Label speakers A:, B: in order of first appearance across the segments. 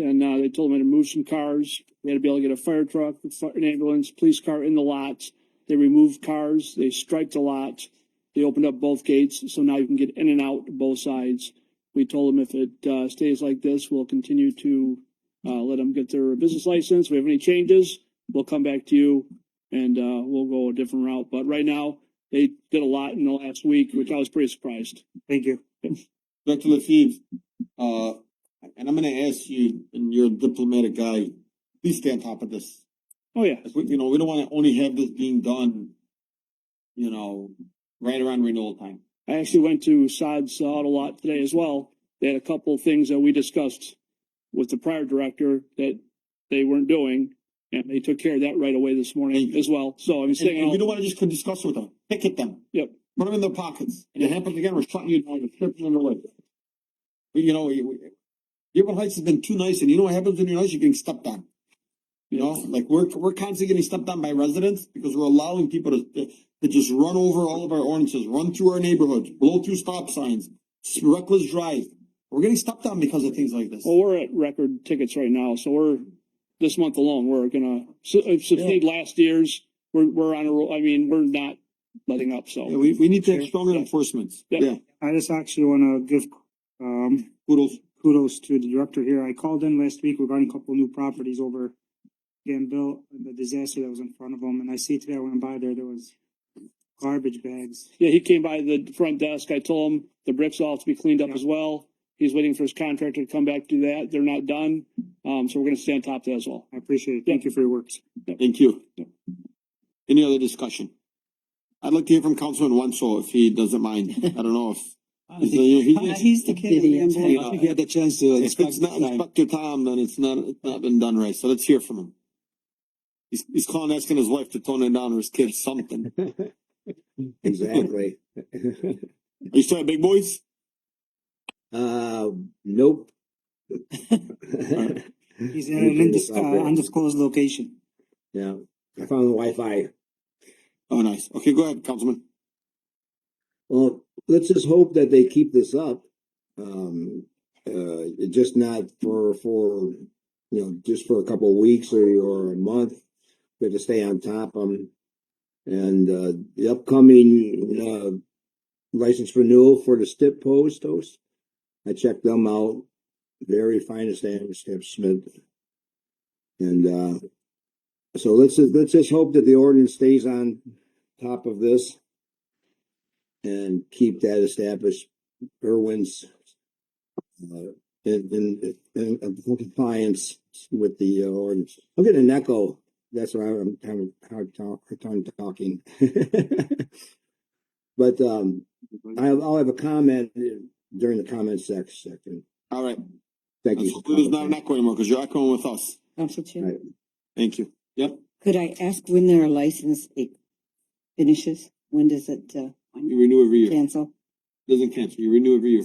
A: uh, told them I had to move some cars. They had to be able to get a fire truck, a fi- an ambulance, police car in the lot. They removed cars, they striped the lot. They opened up both gates, so now you can get in and out both sides. We told them if it uh, stays like this, we'll continue to uh, let them get their business license. If we have any changes, we'll come back to you and uh, we'll go a different route. But right now, they did a lot in the last week, which I was pretty surprised.
B: Thank you.
C: Director Lefebvre, uh, and I'm gonna ask you, and you're a diplomatic guy, please stay on top of this.
A: Oh, yeah.
C: Like, we- You know, we don't wanna only have this being done, you know, right around renewal time.
A: I actually went to Sod's Auto Lot today as well. They had a couple of things that we discussed with the prior director that they weren't doing, and they took care of that right away this morning as well. So I'm
C: And
A: saying,
C: and we don't wanna just discuss with them, picket them.
A: um, Yep.
C: Put them in their pockets, and it happens again, we're shutting you down, we're stripping them away. But you know, we- we- Dearborn Heights has been too nice, and you know what happens when you're nice, you're getting stepped on. You know, like we're, we're constantly getting stepped on by residents because we're allowing people to, to- to just run over all of our ordinances, run through our neighborhoods, blow through stop signs, reckless drive. We're getting stepped on because of things like this.
A: well, we're at record tickets right now, so we're, this month alone, we're gonna, su- uh, succeed last year's. We're, we're on a roll, I mean, we're not letting up, so.
C: Yeah, we, we need to have stronger enforcement.
A: Yeah.
C: Yeah,
B: I just actually want to give um
C: kudos.
B: kudos to the director here. I called in last week regarding a couple of new properties over Gambill, the disaster that was in front of them, and I see today I went by there, there was garbage bags.
A: Yeah, he came by the front desk. I told him the bricks all have to be cleaned up
B: Yeah.
A: as well. He's waiting for his contractor to come back to that. They're not done. Um, so we're gonna stay on top of that as well.
B: I appreciate it. Thank you for your work.
C: Thank you. Any other discussion? I'd like to hear from Councilman Wanso if he doesn't mind. I don't know if. he's- uh, he's-
B: Uh,
D: He's the kid with the
C: Yeah.
D: emblem.
E: He had the chance to
C: If
E: inspect
C: it's
E: the
C: not
E: time.
C: Inspector Tom, then it's not, it's not been done right, so let's hear from him. He's, he's calling, asking his wife to tone it down or his kids something.
E: Exactly.
C: Are you still at Big Boys?
E: Uh, nope.
B: He's in an indis- uh, undisclosed location.
E: Yeah, I found the Wi-Fi.
C: Oh, nice. Okay, go ahead, Councilman.
E: Well, let's just hope that they keep this up. Um, uh, just not for, for, you know, just for a couple of weeks or, or a month. We have to stay on top of 'em. And, uh, the upcoming, uh, license renewal for the Stip Post host. I checked them out. Very finest Adam Stip Smith. And, uh, so let's, just- let's just hope that the ordinance stays on top of this and keep that established Irwin's uh, in, in, in compliance with the uh, ordinance. I'm getting an echo. That's why I'm having a hard talk, hard time talking. but um, I, I'll have a comment during the comment sec- section.
C: All right.
E: Thank
C: Let's
E: you.
C: hope There's not an echo anymore because you're echoing with us.
D: Council Chair,
E: Right.
C: Thank you.
D: could I ask when their license it finishes? When does it uh
C: You renew every year.
D: cancel?
C: Doesn't cancel. You renew every year.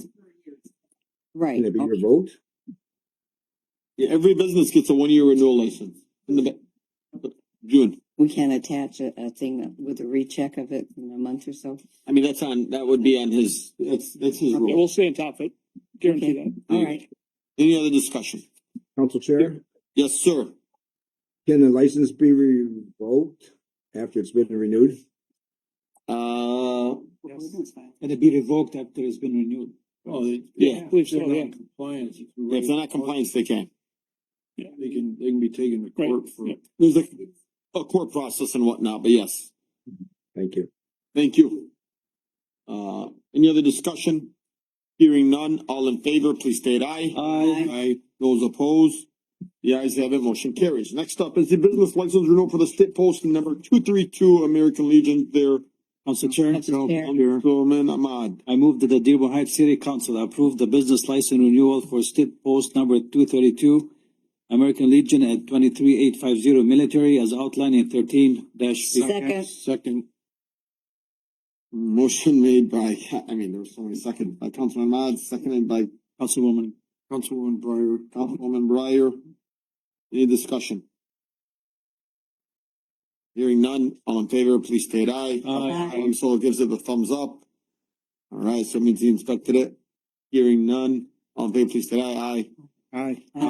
D: Right, Oh,
E: Can it be your vote?
C: Yeah, every business gets a one-year renewal license in the ba- June.
D: we can't attach a a thing with a recheck of it in a month or so.
C: I mean, that's on, that would be on his, that's, that's his
A: Yeah,
C: rule.
A: we'll stay on top of it. Guarantee that.
D: All right,
C: Any other discussion?
E: Council Chair,
C: Yes, sir.
E: can the license be revoked after it's been renewed?
C: Uh,
F: And it be revoked after it's been renewed.
G: Oh, they,
A: I
C: yeah.
A: believe so,
G: they're not
A: yeah.
G: in compliance.
C: If they're not compliant, they can.
G: They can, they can be taken to
A: Right,
G: court for.
A: yeah.
C: There's a, a court process and whatnot, but yes,
E: Thank you.
C: thank you. Uh, any other discussion? Hearing none, all in favor, please state aye.
D: Aye.
C: Aye. Those opposed? The ayes have it, motion carries. Next up is the business license renewal for the state post and number two three two American Legion there.
F: Council Chair,
D: Council Chair.
C: Councilman Ahmad.
F: I move that the Dearborn Heights City Council approve the business license renewal for state post number two thirty-two, American Legion at twenty-three eight five zero military as outlined in thirteen dash.
D: second,
C: Second. Motion made by, I mean, there was so many second, by Councilman Ahmad, seconded by
F: Councilwoman,
C: Councilwoman Breyer, Councilwoman Breyer. Any discussion? Hearing none, all in favor, please state aye.
F: Aye.
C: Um, so it gives it the thumbs up. All right, so it means he inspected it. Hearing none, all in favor, please state aye. Aye.
F: aye.